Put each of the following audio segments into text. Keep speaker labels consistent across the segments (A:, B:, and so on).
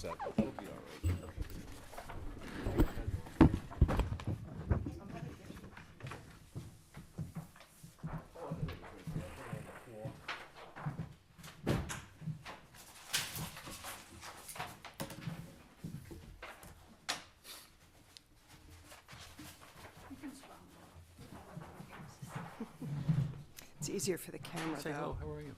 A: So it'll be all right.
B: It's easier for the camera,
C: Say hello,
B: though.
C: how are you?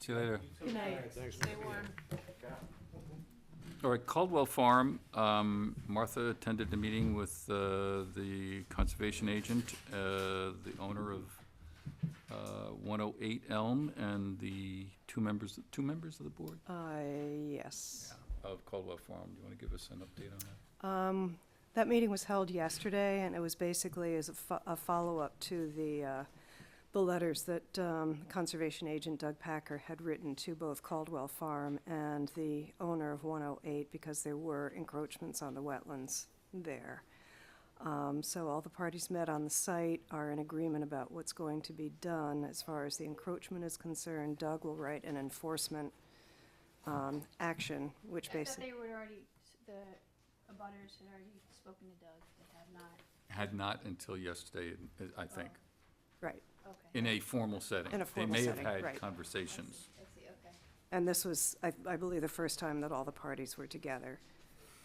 C: See you later.
D: Good night. Stay warm.
C: All right, Caldwell Farm, um, Martha attended the meeting with uh, the conservation agent, uh, the owner of uh, 108 Elm, and the two members, two members of the board
B: Uh, yes.
C: of Caldwell Farm. Do you want to give us an update on that?
B: Um, That meeting was held yesterday, and it was basically as a fo- a follow-up to the, uh, the letters that um, Conservation Agent Doug Packer had written to both Caldwell Farm and the owner of 108, because there were encroachments on the wetlands there. Um, So all the parties met on the site are in agreement about what's going to be done as far as the encroachment is concerned. Doug will write an enforcement um, action, which
D: I thought
B: basically,
D: they were already, the abutters had already spoken to Doug, they have not,
C: Had not until yesterday, I think,
D: Oh.
B: right.
D: um, okay.
C: in a formal setting.
B: In a formal
C: They
B: setting,
C: may have
B: right.
C: had conversations.
D: I see, okay.
B: And this was, I, I believe, the first time that all the parties were together.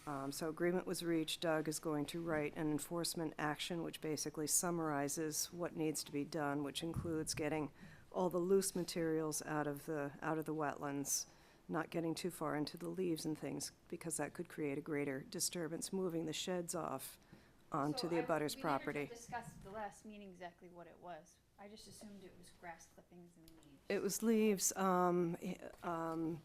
B: Um, so agreement was reached, Doug is going to write an enforcement action, which basically summarizes what needs to be done, which includes getting all the loose materials out of the, out of the wetlands, not getting too far into the leaves and things, because that could create a greater disturbance, moving the sheds off onto
D: So
B: the
D: I-
B: abutter's
D: We
B: property.
D: never discussed at the last meeting exactly what it was. I just assumed it was grass clippings and leaves.
B: It was leaves, um, eh, um,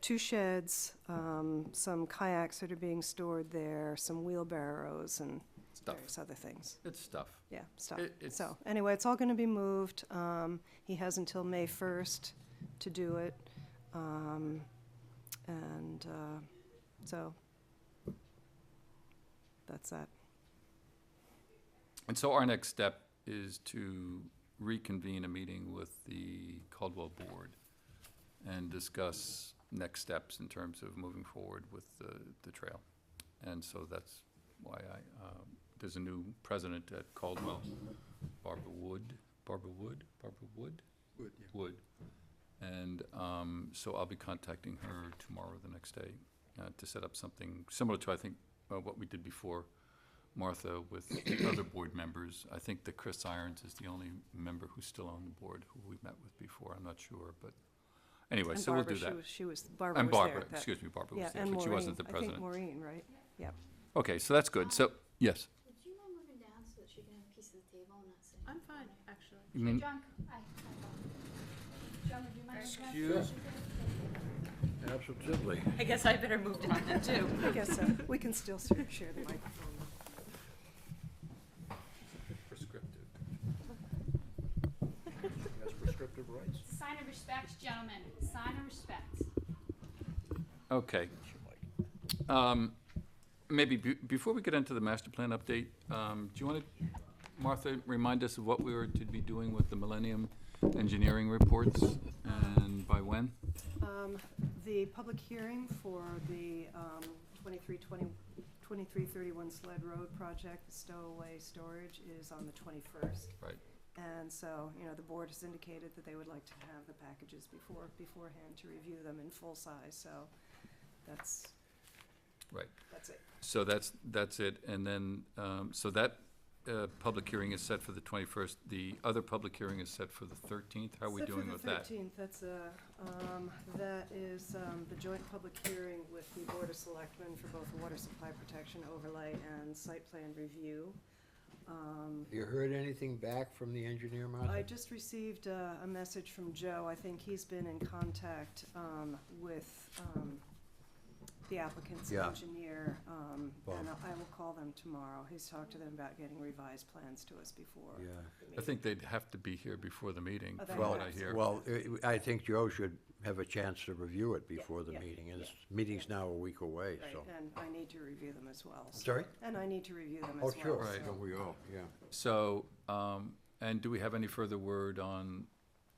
B: two sheds, um, some kayaks that are being stored there, some wheelbarrows and
C: Stuff.
B: various other things.
C: It's stuff.
B: Yeah, stuff.
C: It- it's-
B: So, anyway, it's all gonna be moved. Um, he has until May first to do it. Um, and, uh, so, that's that.
C: And so our next step is to reconvene a meeting with the Caldwell Board and discuss next steps in terms of moving forward with the, the trail. And so that's why I, um, there's a new president at Caldwell, Barbara Wood, Barbara Wood, Barbara Wood?
A: Wood, yeah.
C: Wood. And um, so I'll be contacting her tomorrow, or the next day, uh, to set up something similar to, I think, uh, what we did before, Martha, with the other board members. I think that Chris Irons is the only member who's still on the board who we met with before. I'm not sure, but anyway,
B: And
C: so we'll
B: Barbara,
C: do
B: she
C: that.
B: was- She was, Barbara
C: And
B: was there.
C: Barbara,
B: at that-
C: excuse me, Barbara
B: Yeah,
C: was there,
B: and
C: but she wasn't the
B: Maureen, I think
C: president.
B: Maureen, right? Yep.
C: Okay, so that's good. So, yes.
E: Would you mind moving down so that she can have a piece of the table and not sitting?
F: I'm fine, actually.
C: You mean-
D: John, I, I, John, would you mind?
A: Excuse- Absolutely.
F: I guess I better move down then too.
B: I guess so. We can still sort of share the microphone.
C: Prescriptive.
A: She has prescriptive rights.
D: Sign of respect, gentlemen, sign of respect.
C: Okay. Um, Maybe be- before we get into the master plan update, um, do you want to, Martha, remind us of what we were to be doing with the Millennium Engineering reports and by when?
B: Um, The public hearing for the um, 2320 2331 Sled Road project, stowaway storage, is on the 21st.
C: Right.
B: And so, you know, the board has indicated that they would like to have the packages before, beforehand to review them in full size, so that's,
C: Right.
B: that's it.
C: So that's, that's it. And then, um, so that uh, public hearing is set for the 21st. The other public hearing is set for the 13th. How are we
B: Except for
C: doing
B: the
C: with that?
B: 13th, that's a, um, that is, um, the joint public hearing with the Board of Selectmen for both water supply protection overlay and site plan review. Um,
G: You heard anything back from the engineer,
B: I
G: Martha?
B: just received uh, a, a message from Joe, I think he's been in contact, um, with, um, the applicant's
G: Yeah.
B: engineer, um, and
G: Bob.
B: I will call them tomorrow, he's talked to them about getting revised plans to us before.
C: I think they'd have to be here before the meeting,
B: Oh,
C: from
B: that's
C: what I
B: right.
C: hear.
G: Well, I- I think Joe should have a chance to review it before the
B: yeah,
G: meeting, and
B: yeah,
G: this meeting's now a week away,
B: Right,
G: so.
B: and I need to review them as well. so-
G: Sorry?
B: And I need to review them
G: Oh,
B: as well.
G: sure.
C: Right.
B: so-
G: we all, yeah.
C: So, um, and do we have any further word on